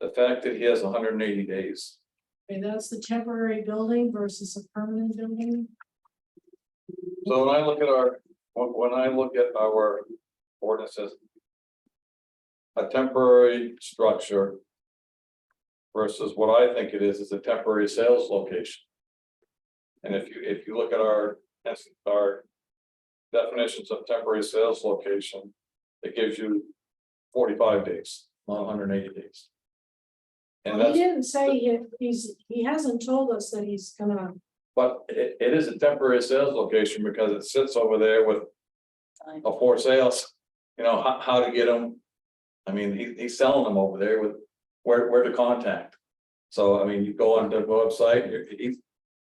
the fact that he has hundred and eighty days. Okay, that's the temporary building versus a permanent building. So when I look at our, when, when I look at our ordinances. A temporary structure. Versus what I think it is, is a temporary sales location. And if you, if you look at our, that's our. Definitions of temporary sales location, it gives you forty-five days, not hundred and eighty days. And Well, that's. He didn't say he, he's, he hasn't told us that he's gonna, But it, it is a temporary sales location because it sits over there with. A for sales, you know, how, how to get them. I mean, he, he's selling them over there with where, where to contact. So I mean, you go on the website, you're- he's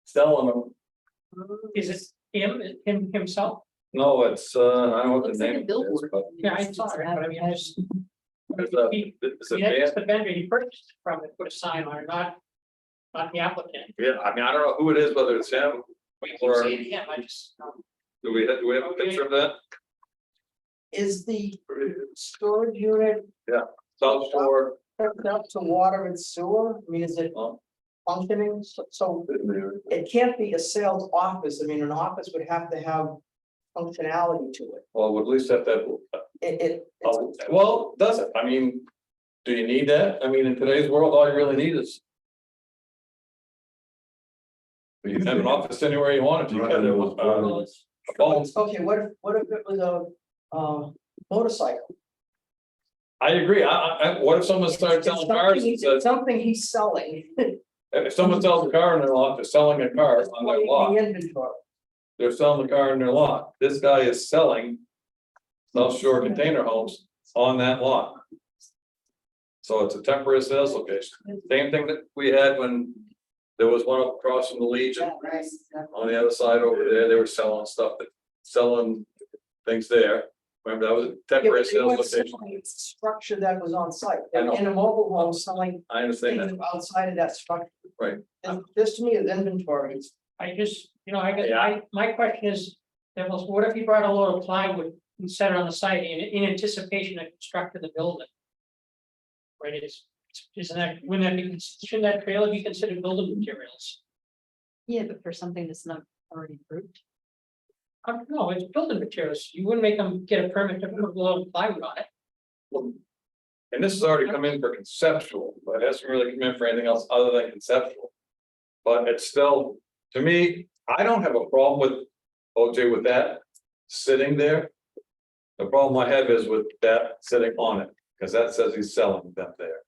selling them. Is it him, him himself? No, it's, uh, I don't know what Looks the like a name is, billboard. but Yeah, I saw it, but I mean, I just. it's a, He, it's a he, van. that's the vendor, he purchased it from it, put a sign on it, not, not the applicant. Yeah, I mean, I don't know who it is, whether it's him. We keep Or- saying him, I just, um, Do we, do we have a picture of that? Is the storage unit South Shore. hooked up to water and sewer? I mean, is it um, functioning? So- So it can't be a sales office. I mean, an office would have to have functionality to it. Well, at least at that, It, it, it's- Oh, well, does it? I mean, do you need that? I mean, in today's world, all you really need is. You can have an office anywhere you want if you got a, uh, a phone. okay, what if, what if it was a, uh, motorcycle? I agree. I, I, I- what if someone starts selling cars and It's says, Something he's selling. if someone sells a car in their lot, they're selling a car on their lot. The inventory. They're selling the car in their lot. This guy is selling. South Shore Container Homes on that lot. So it's a temporary sales location. Same thing that we had when there was one up across from the Legion Right. on the other side over there, they were selling stuff that, selling things there. Remember, that was a It temporary was sales location. Structure that was on site, I know. in a mobile home selling I understand things that. outside of that structure. Right. And this to me is inventory. I just, you know, I guess, Yeah. I, my question is, there was, what if he brought a load of plywood and set it on the site in, in anticipation of constructing the building? Right, it's, isn't that, wouldn't that be, shouldn't that trailer be considered building materials? Yeah, but for something that's not already approved. I don't know, Uh, it's building materials, you wouldn't make them get a permit to put a load of plywood on it. And this has already come in for conceptual, but it hasn't really come in for anything else other than conceptual. But it's still, to me, I don't have a problem with OJ with that sitting there. The problem I have is with that sitting on it, because that says he's selling them there.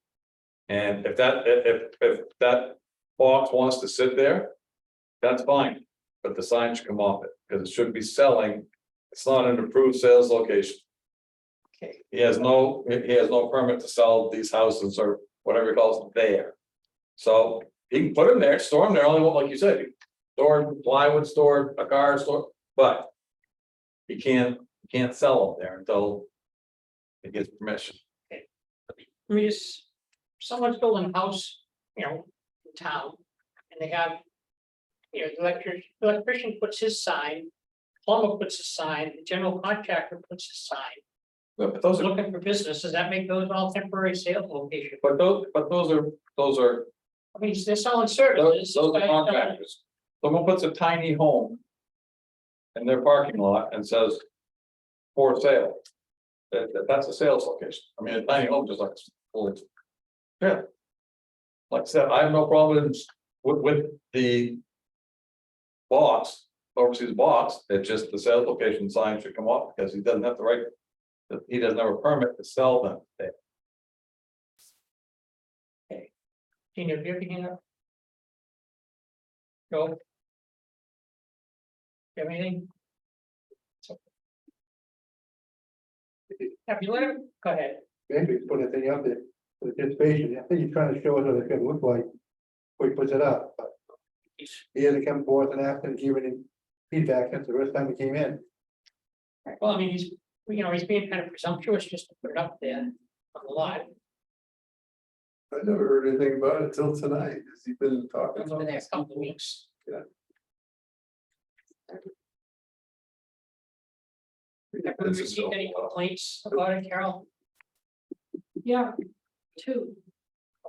And if that, if, if, if that box wants to sit there, that's fine, but the sign should come off it, because it should be selling. It's not an approved sales location. Okay. He has no, he he has no permit to sell these houses or whatever he calls them there. So he can put them there, store them there, only like you said, store plywood, store a car, store, but. He can't, he can't sell them there until. He gets permission. I mean, it's, someone's building a house, you know, in town, and they have. You know, the electric, the electrician puts his sign, plumber puts his sign, the general contractor puts his sign, But those are, looking for business, does that make those all temporary sales locations? but those, but those are, those are, I mean, they're selling those services. those are contractors. Someone puts a tiny home. In their parking lot and says. For sale. That, that- that's a sales location. I mean, a tiny home just like. well, Yeah. Like I said, I have no problems with, with the. Boss, overseas boss, it's just the sales location sign should come off because he doesn't have the right. He doesn't have a permit to sell them there. Can you hear me now? Go. You have anything? Have you let him, go ahead. maybe put a thing up there, for the anticipation, I think he's trying to show us what it's gonna look like. Before he puts it up, but he hasn't come forth and asked and given any feedback since the first time he came in. Well, I mean, he's, you know, he's being kind of presumptuous just to put it up there on the lot. I never heard anything about it till tonight, has he been talking over the next couple of weeks. Yeah. Have we received any complaints about it, Carol? Yeah, two.